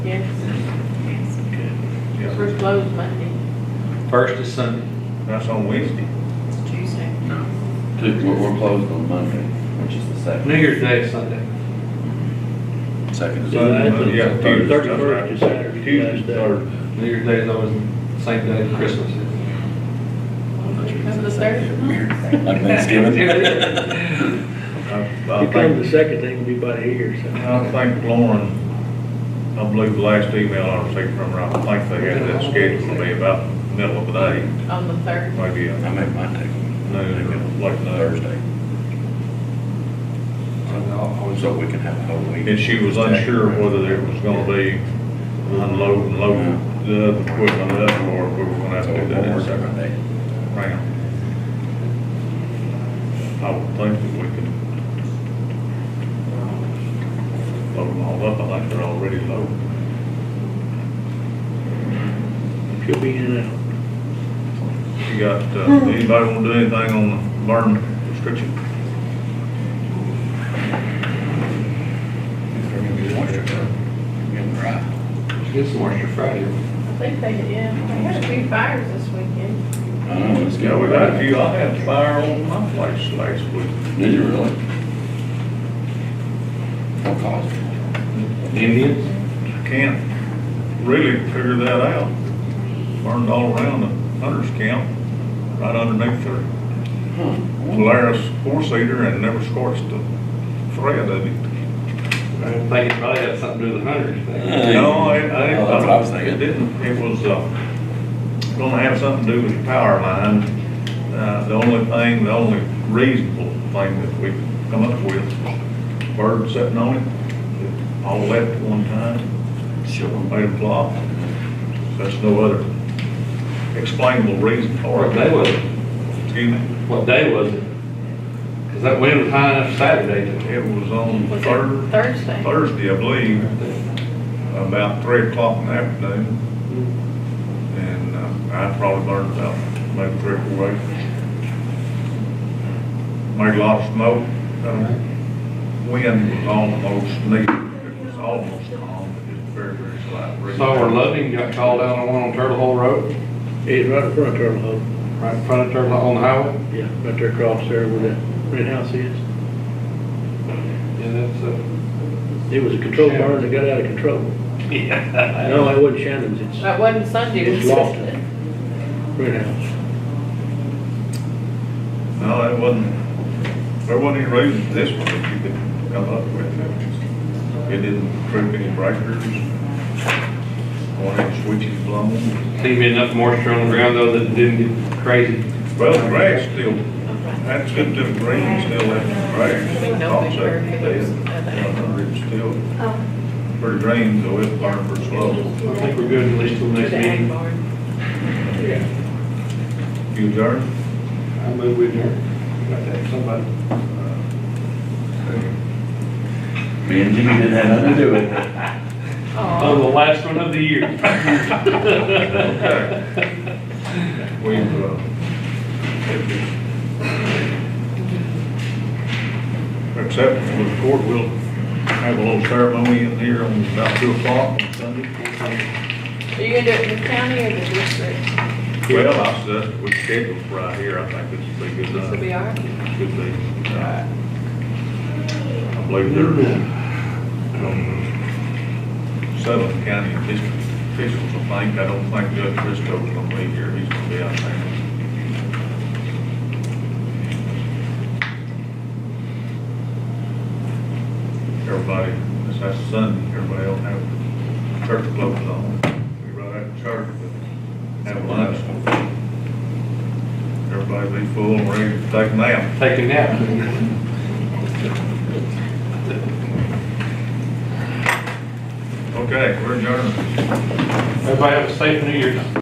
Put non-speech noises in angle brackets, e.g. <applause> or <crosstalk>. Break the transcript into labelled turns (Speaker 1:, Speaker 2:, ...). Speaker 1: Yes,
Speaker 2: Yeah,
Speaker 1: we're closed Monday.
Speaker 3: First is Sunday.
Speaker 2: that's on Wednesday.
Speaker 1: It's Tuesday.
Speaker 4: Two, we're, we're closed on Monday, which is the
Speaker 3: New
Speaker 4: second.
Speaker 3: Year's Day is Sunday.
Speaker 4: Second is
Speaker 2: So that's what- yeah, Tuesday, that's right.
Speaker 5: Thirty-first is Saturday,
Speaker 2: Tuesday,
Speaker 5: last day.
Speaker 2: third.
Speaker 3: New Year's Day is always the same day as Christmas. is.
Speaker 1: Because of the third.
Speaker 4: Like Thanksgiving. <laughs>
Speaker 2: I- I
Speaker 5: You come the
Speaker 2: think,
Speaker 5: second, ain't gonna be nobody here, so.
Speaker 2: I think Lauren, I believe the last email I received from her, I think they had that scheduled to be about middle of the day,
Speaker 1: <laughs> On the third.
Speaker 2: maybe
Speaker 4: I
Speaker 2: uh,
Speaker 4: may mine take.
Speaker 2: noon, or late noon.
Speaker 4: Thursday,
Speaker 3: And I'll always-
Speaker 4: so we can have a whole week.
Speaker 2: And she was unsure whether there was gonna be unload and load the other equipment up, or we were gonna have
Speaker 4: So
Speaker 2: to do that in
Speaker 4: we're
Speaker 2: a
Speaker 4: working on
Speaker 2: second
Speaker 4: that.
Speaker 2: round. I would think that we could load them all up, I think they're already loaded.
Speaker 5: She'll be in and
Speaker 2: You got, uh, anybody wanna do anything on the burn restriction?
Speaker 4: If they're gonna be moisture, getting dry.
Speaker 3: Get some moisture Friday.
Speaker 1: I think they, yeah, they had a few fires this weekend.
Speaker 4: I know, it's
Speaker 2: Yeah, we got a few, I had a fire on my place last week.
Speaker 4: Did you really? What caused it?
Speaker 3: Indians?
Speaker 2: I Can't really figure that out. Burned all around the hunter's camp, right underneath their Polaris four-seater and never scorched the thread of it.
Speaker 3: I think it probably had something to do with the hunters. thing.
Speaker 4: Hey.
Speaker 2: No, it, I didn't.
Speaker 4: Oh, that's what I was thinking.
Speaker 2: It didn't, it was, uh, gonna have something to do with the power line. Uh, the only thing, the only reasonable thing that we could come up with, was bird sitting on it, all left at one time,
Speaker 4: Sure.
Speaker 2: made a flop. That's no other explainable reason for
Speaker 3: Or
Speaker 2: it.
Speaker 3: what day was it?
Speaker 2: Excuse me.
Speaker 3: What day was it? Because that wind was high enough Saturday to.
Speaker 2: It was on
Speaker 1: Was it
Speaker 2: Thur-
Speaker 1: Thursday.
Speaker 2: Thursday, I believe, about three o'clock in the afternoon. And uh, I probably burned about maybe three or four acres. Made a lot of smoke. Uh, Wind was almost neat. It was almost calm, but it's very, very slight. breeze.
Speaker 3: So we're loving, got called out on one on Turtle Hole Road,
Speaker 5: out. It's right in front of Turtle Hole,
Speaker 3: right in front of Turtle, Hole on the highway.
Speaker 5: yeah, right there across there where that red house is.
Speaker 3: Yeah, that's, uh. <laughs>
Speaker 5: It was a control barn that got out of control. No, it wasn't Shannon's, it's
Speaker 1: That wasn't Sunday, it was
Speaker 5: It's Lofton.
Speaker 1: Tuesday.
Speaker 5: red house.
Speaker 2: No, it wasn't, there wasn't any reason this one that you could come up with. It didn't trip any breakers. One of the switches blown.
Speaker 3: Seemed to be enough moisture on the ground though that it didn't get crazy.
Speaker 2: Well, the grass still, that's good, the green still left the
Speaker 1: We
Speaker 2: grass.
Speaker 1: know they
Speaker 2: Tops
Speaker 1: were-
Speaker 2: up there, uh, It's still pretty green, though it burned pretty slow.
Speaker 3: I think we're good at least till next
Speaker 1: The ag
Speaker 3: meeting.
Speaker 1: barn.
Speaker 5: Yeah.
Speaker 2: You adjourn?
Speaker 3: I move with you. Got that, somebody.
Speaker 4: Me and Jimmy didn't have nothing to do with it.
Speaker 3: Oh, the
Speaker 1: Oh,
Speaker 3: last one of the year.
Speaker 2: Okay. We've, uh, except for the court, we'll have a little ceremony in here on about two o'clock on Sunday.
Speaker 1: are you gonna do it in the county or the district?
Speaker 2: Well, I said, we scheduled for right here, I think this will be a good
Speaker 1: This will
Speaker 2: night.
Speaker 1: be all right.
Speaker 2: Should be. I believe they're um, seven county district officials, I think. I don't think Judge Christo's gonna be here. He's gonna be out there. Everybody, this last Sunday, everybody will have church clothes on. We right out of church, but have lunch. Everybody be full and ready to take a nap.
Speaker 3: Take a nap.
Speaker 2: Okay, we're adjourned.
Speaker 3: Everybody have a safe New Year's.